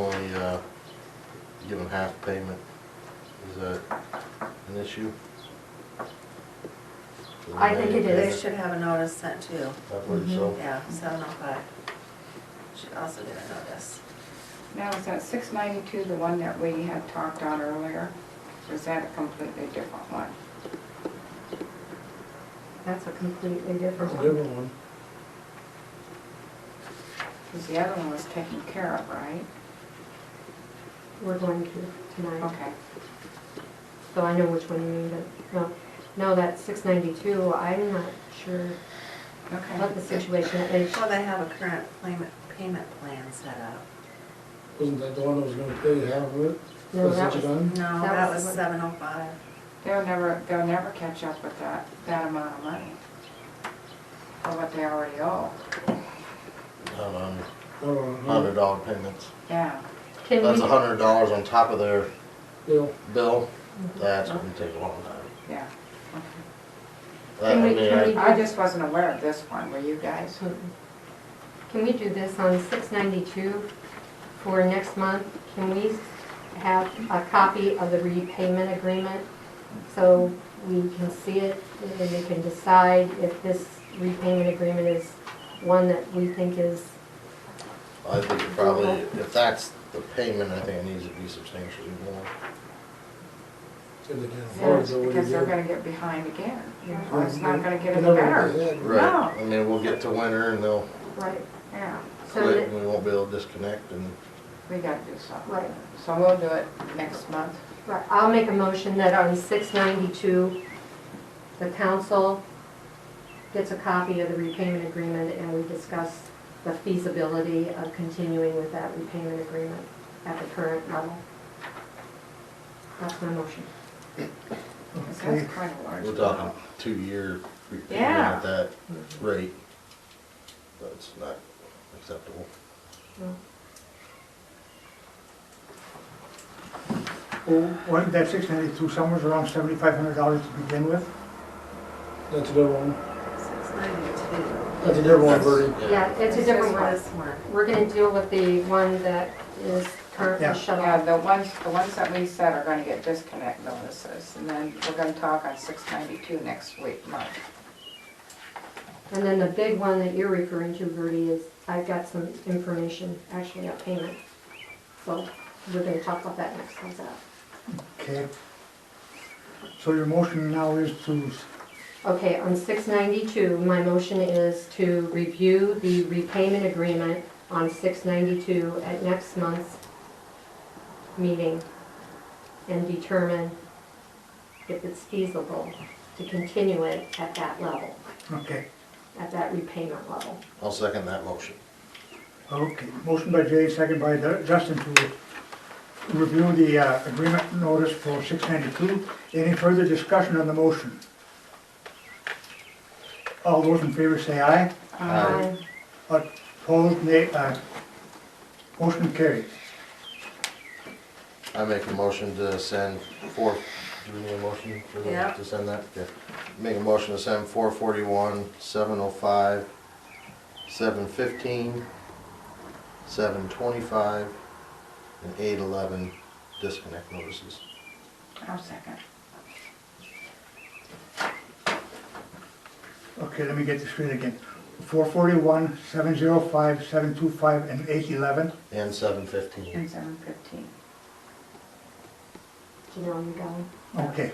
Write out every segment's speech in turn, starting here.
uh, half payment is a, an issue? I think it They is. should have a notice sent too, I believe so. yeah, seven oh five. Should also do a notice. Now, is that six ninety-two the one that we had talked on earlier? Or is that a completely different one? That's a completely different That's a one. different one. Because the other one was taken care of, right? We're going to tonight. Okay. So I know which one you mean, but no, no, that six ninety-two, I'm not sure what Okay. the situation is. Well, they have a current payment, payment plan set up. Wasn't that the one that was gonna pay half of it? No, Is that it was- done? No, That that was was the seven oh five. They'll never, they'll never catch up with that, that amount of money. Or what they already owe. Um, Hold on, hold on. hundred dollar payments. Yeah. Can That's a we, hundred dollars on top of their Yeah, bill. Mm-hmm. That's gonna take a long time. Yeah. That- Can I we- mean, can I- we- I just wasn't aware of this one, were you guys? Hmm. can we do this on six ninety-two for next month? Can we have a copy of the repayment agreement so we can see it and then we can decide if this repayment agreement is one that we think is, I think it probably, if that's the payment, I think it needs to be substantially more. said they can't afford it, Yes, so what do you because they're do? gonna get behind again. You know, Yeah, It's not gonna get they're any never better. ahead. Right, I mean, we'll get to winter and they'll right? Yeah, So quit that, and we won't be able to disconnect and we gotta do something. Right. So we'll do it next month. Right, I'll make a motion that on six ninety-two, the council gets a copy of the repayment agreement and we discuss the feasibility of continuing with that repayment agreement at the current level. That's my motion. Because that's quite a large we're amount. talking two year repayment Yeah. at that rate. That's not acceptable. Well, wasn't that six ninety-two, somewhere around seventy-five hundred dollars to begin with? That's a different one. Six ninety-two. That's a different one, That's- Bertie. Yeah, it's a different one. This one. We're gonna deal with the one that is Yeah. currently shut Yeah, off. the ones, the ones that we said are gonna get disconnect notices, and then we're gonna talk on six ninety-two next week, Mark. And then the big one that you're referring to, Gertie, is, I've got some information actually on payment. So we're gonna talk about that next time out. Okay. So your motion now is to, Okay, on six ninety-two, my motion is to review the repayment agreement on six ninety-two at next month's meeting and determine if it's feasible to continue it at that level, okay, at that repayment level. I'll second that motion. okay. Motion by Jay, second by Ju- Justin to review the uh, agreement notice for six ninety-two. Any further discussion on the motion? All those in favor say aye. Aye. Opposed, nay. Uh, Motion carries. I make a motion to send four, do we need a motion for Yeah. that, to send that? Yeah. Make a motion to send four forty-one, seven oh five, seven fifteen, seven twenty-five, and eight eleven disconnect notices. I'll second. Okay, let me get this straight again. Four forty-one, seven zero five, seven two five, and eight eleven. And seven fifteen. And seven fifteen. Do you know where I'm going? Okay.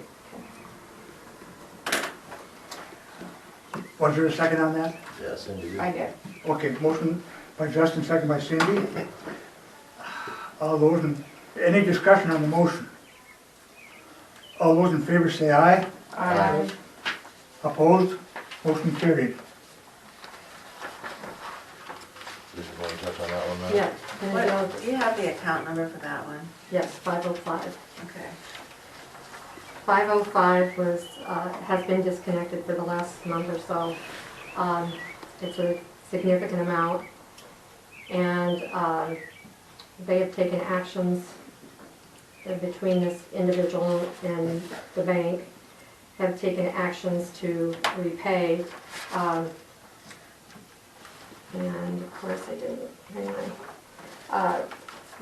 Was there a second on that? Yes, and you. I did. Okay, motion by Justin, second by Cindy. All those, in any discussion on the motion? All those in favor say aye. Uh, Opposed? Motion carried. Did you want to touch on that one now? Yeah, gonna go, What, do you have the account number for that one? yes, five oh five. Okay. 505 was, uh, has been disconnected for the last month or so. Um, It's a significant amount. And um, they have taken actions in between this individual and the bank, have taken actions to repay. um, And of course, I didn't, hang on. Uh,